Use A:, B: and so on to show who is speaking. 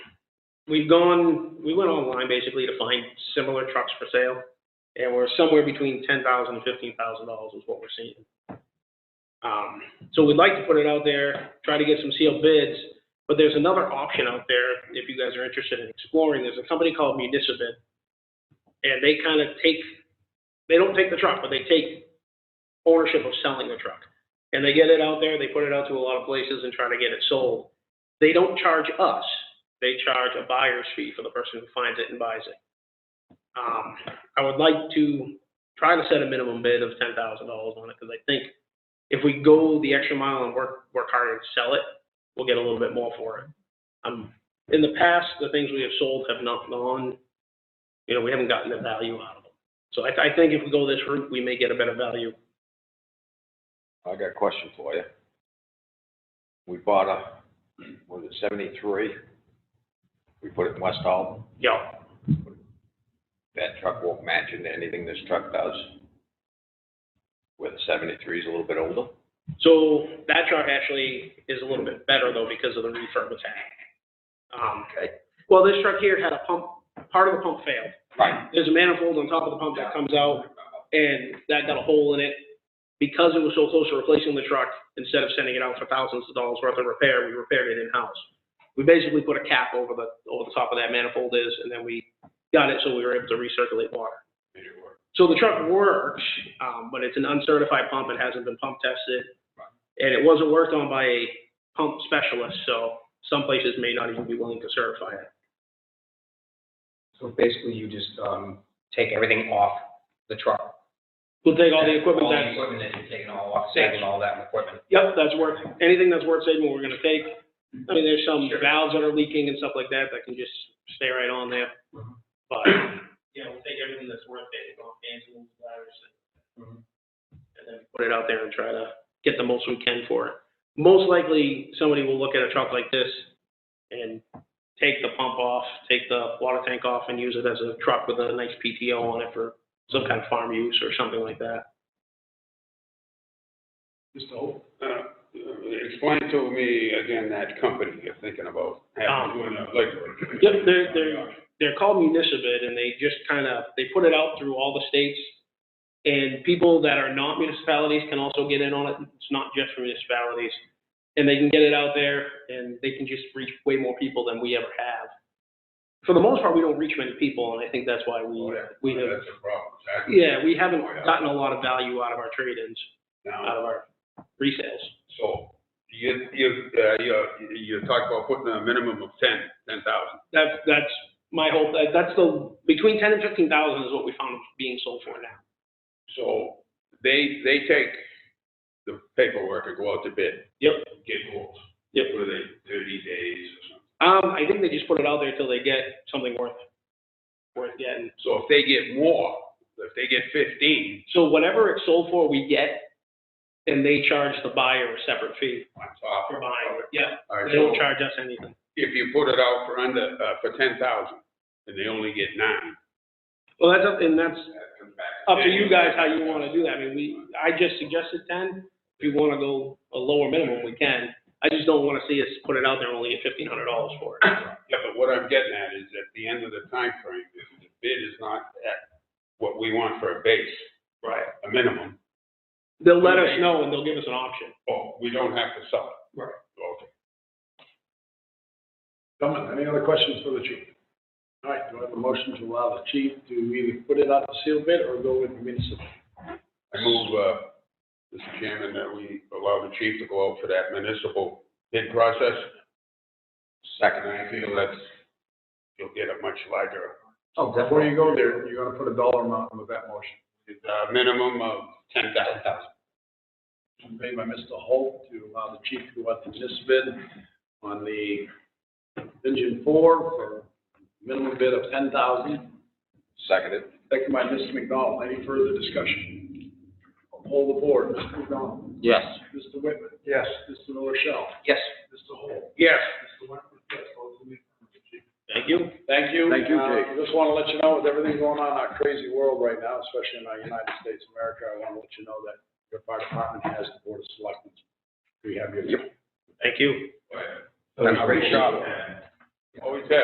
A: we've gone, we went online basically to find similar trucks for sale, and we're somewhere between ten thousand and fifteen thousand dollars is what we're seeing. Um, so we'd like to put it out there, try to get some sealed bids, but there's another option out there, if you guys are interested in exploring, there's a company called Municipal. And they kind of take, they don't take the truck, but they take ownership of selling the truck. And they get it out there, they put it out to a lot of places and try to get it sold. They don't charge us, they charge a buyer's fee for the person who finds it and buys it. Um, I would like to try to set a minimum bid of ten thousand dollars on it, because I think if we go the extra mile and work, work harder to sell it, we'll get a little bit more for it. Um, in the past, the things we have sold have not gone, you know, we haven't gotten the value out of them. So I, I think if we go this route, we may get a better value.
B: I got a question for you. We bought a, was it seventy-three? We put it in West Alton.
A: Yeah,
B: That truck won't match into anything this truck does. With seventy-three is a little bit older.
A: so that truck actually is a little bit better though because of the refurb it's had. Um,
B: Okay.
A: Well, this truck here had a pump, part of the pump failed.
B: Right.
A: There's a manifold on top of the pump that comes out and that got a hole in it. Because it was so close to replacing the truck, instead of sending it out for thousands of dollars worth of repair, we repaired it in-house. We basically put a cap over the, over the top of that manifold is, and then we got it so we were able to recirculate water. So the truck works, um, but it's an uncertified pump. It hasn't been pump tested. And it wasn't worked on by a pump specialist, so some places may not even be willing to certify it.
C: So basically, you just, um, take everything off the truck.
A: We'll take all the equipment
C: All the
A: that's,
C: equipment that you're taking all off, saving all that equipment.
A: yep, that's worth, anything that's worth saving, we're gonna take. I mean, there's some valves that are leaking and stuff like that that can just stay right on there. But, Mm-hmm. yeah, we'll take everything that's worth taking off, cancel, wires, and and then Mm-hmm. put it out there and try to get the most we can for it. Most likely, somebody will look at a truck like this and take the pump off, take the water tank off and use it as a truck with a nice PTO on it for some kind of farm use or something like that.
D: Mr. Holt? Uh, Explain to me again that company you're thinking about,
A: Um,
D: having doing a, like.
A: Yep, they're, they're, they're called municipal and they just kind of, they put it out through all the states. And people that are not municipalities can also get in on it. It's not just for municipalities. And they can get it out there and they can just reach way more people than we ever have. For the most part, we don't reach many people and I think that's why
D: Oh,
A: we, we have,
D: That's a problem, exactly.
A: yeah, we haven't
D: Oh,
A: gotten a lot of value out of our trade-ins, out
D: Now,
A: of our resales.
D: so, you, you, uh, you, you talk about putting a minimum of ten, ten thousand.
A: That's, that's my hope. That- That's the, between ten and fifteen thousand is what we found being sold for now.
D: So, they, they take the paperwork and go out to bid.
A: Yep.
D: Get quotes.
A: Yep.
D: What are they, thirty days or something?
A: Um, I think they just put it out there till they get something worth, worth getting.
D: So if they get more, if they get fifteen,
A: So whatever it's sold for, we get, and they charge the buyer a separate fee
D: on top
A: for
D: of
A: buying it.
D: it.
A: Yeah,
D: All right,
A: they don't
D: so-
A: charge us anything.
D: if you put it out for under, uh, for ten thousand, and they only get nine.
A: Well, that's up, and that's
D: that comes back
A: up to you guys how you wanna do that. I mean, we, I just suggested ten. If you wanna go a lower minimum, we can. I just don't wanna see us put it out there and only get fifteen hundred dollars for it.
D: Yeah, but what I'm getting at is at the end of the time frame, if the bid is not at what we want for a base,
A: Right.
D: a minimum,
A: They'll let us know and they'll give us an option.
D: oh, we don't have to sell it.
A: Right.
D: Okay.
E: Gentlemen, any other questions for the chief? All right, do I have a motion to allow the chief to either put it out to seal bid or go with the municipal?
D: I move, uh, Mr. Chairman, that we allow the chief to go out for that municipal bid process. Second, I feel that's, you'll get a much larger,
E: Oh, Before you go there, you're gonna put a dollar amount with that motion.
D: uh, minimum of ten thousand.
E: Motion Made by Mr. Holt to allow the chief to go out to municipal bid on the engine four for minimum bid of ten thousand.
B: Seconded.
E: Second by Mr. McDonald, any further discussion? I'll Poll the board, Mr. McDonald,
C: Yes.
E: Mr. Whitman. Yes. Mr. Rochelle,
C: Yes.
E: Mr. Holt.
D: Yes.
E: Mr. Whitman, yes, vote for me.
A: Thank you.
E: Thank you.
B: Thank you, Jake.
E: Uh, Just want to let you know, with everything going on in our crazy world right now, especially in our United States of America, I want to let you know that your fire department has the board of selectmen. We have your.
A: Thank you.
D: Great job. Always have.